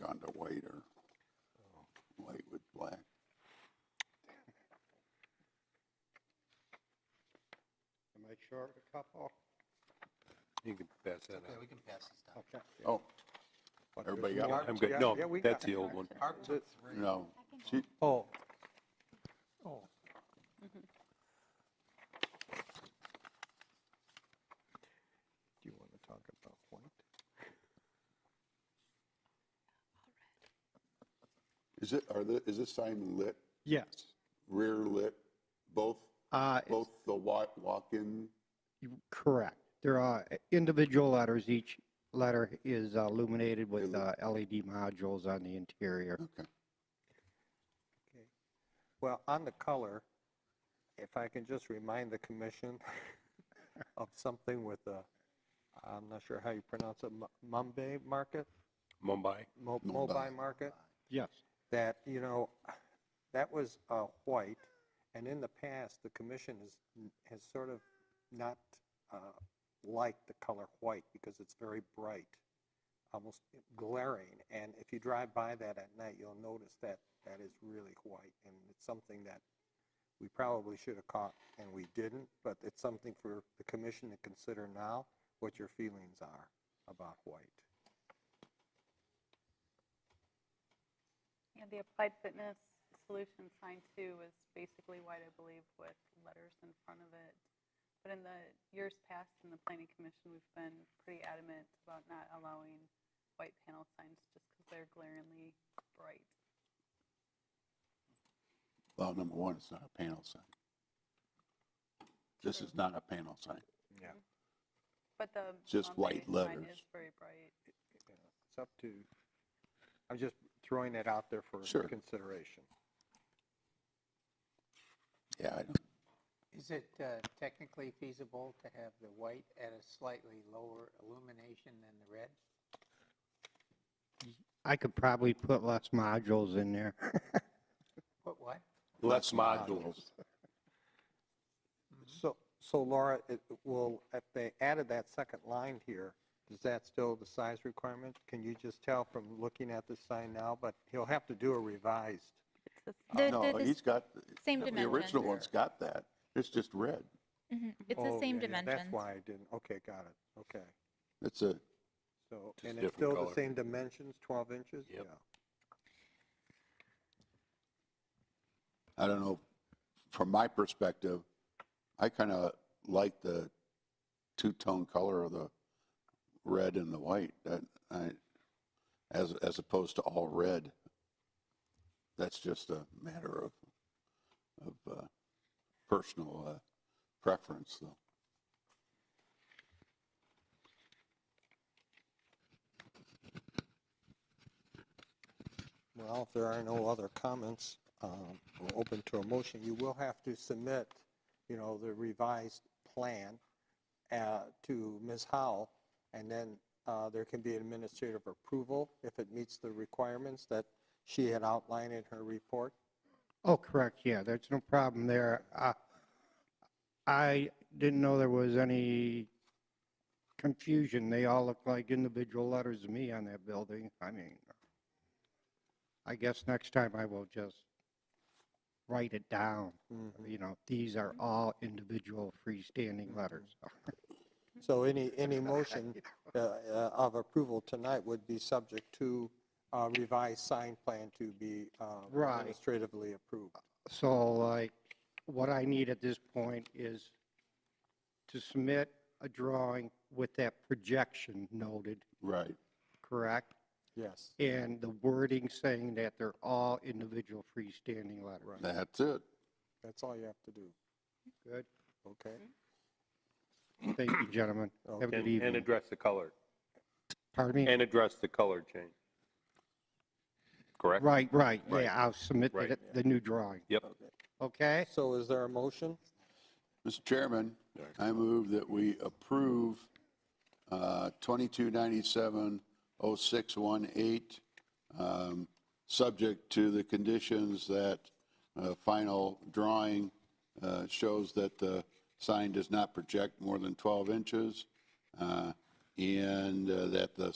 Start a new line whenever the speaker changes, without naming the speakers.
Wanda White or White with black.
Am I short a couple?
You can pass that
Okay,
out.
we can pass these down.
Okay.
Oh,
But
Everybody
there's
got
more.
one?
I'm good.
Yeah,
No,
yeah, we
that's
got
the
it.
old one.
Arc two, three.
no. She,
Oh. Oh. Do you want to talk about white?
is it, are the, is this sign lit,
Yes.
rear lit, both,
Uh, it's-
both the wa- walk-in?
you- Correct. There are uh, individual letters. Each letter is uh, illuminated with
Illu-
uh, LED modules on the interior.
Okay.
Okay. Well, on the color, if I can just remind the commission of something with the, I'm not sure how you pronounce it, Mu- Mumbai Market?
Mumbai.
Mo-
Mumbai.
Mobi Market?
Yes.
that, you know, that was uh, white, and in the past, the commission has, has sort of not uh, liked the color white because it's very bright, almost glaring, and if you drive by that at night, you'll notice that that is really white, and it's something that we probably should have caught, and we didn't, but it's something for the commission to consider now, what your feelings are about white.
Yeah, the Applied Fitness Solution sign two is basically white, I believe, with letters in front of it. But in the years past, in the planning commission, we've been pretty adamant about not allowing white panel signs just because they're glaringly bright.
Well, number one, it's not a panel sign. This is not a panel sign.
But the
Just
Mount
white
Baby sign
letters.
is very bright.
you know, It's up to, I'm just throwing it out there for
Sure.
consideration.
Yeah, I don't.
Is it uh, technically feasible to have the white at a slightly lower illumination than the red?
I could probably put less modules in there.
What, what?
Less modules.
So, so Laura, it will, if they added that second line here, is that still the size requirement? Can you just tell from looking at the sign now, but he'll have to do a revised.
The, the,
No,
the
he's got,
same
the original
dimension.
one's got that. It's just red.
Mhm. It's
Oh,
the same
yeah, yeah,
dimension.
That's why I didn't, okay, got it, okay.
It's a,
So,
Just
and
a
it's
different
still the
color.
same dimensions, 12 inches?
Yep.
Yeah.
I don't know, from my perspective, I kind of like the two-tone color of the red and the white, that, I, as, as opposed to all red. That's just a matter of, of, uh, personal, uh, preference, though.
Well, if there are no other comments, um, we're open to a motion. You will have to submit, you know, the revised plan uh, to Ms. Howell, and then uh, there can be administrative approval if it meets the requirements that she had outlined in her report.
Oh, correct, yeah, there's no problem there. Uh, I didn't know there was any confusion. They all look like individual letters to me on that building. I mean, I guess next time I will just write it down. You know, these are all individual freestanding letters.
So any, any motion uh, uh, of approval tonight would be subject to uh, revised sign plan to be uh,
Right.
administratively approved.
So like, what I need at this point is to submit a drawing with that projection noted,
Right.
correct?
Yes.
And the wording saying that they're all individual freestanding letters.
That's it.
That's all you have to do,
Good.
okay?
Thank you, gentlemen. Have a
Okay.
good
And, and
evening.
address the color,
Pardon me?
and address the color change. Correct?
Right, right.
Right.
Yeah, I'll submit
Right.
the, the new drawing.
Yep.
Okay?
So is there a motion?
Mr. Chairman, I move that we approve uh, 2297-0618, um, subject to the conditions that uh, final drawing uh, shows that the sign does not project more than 12 inches, uh, and uh, that the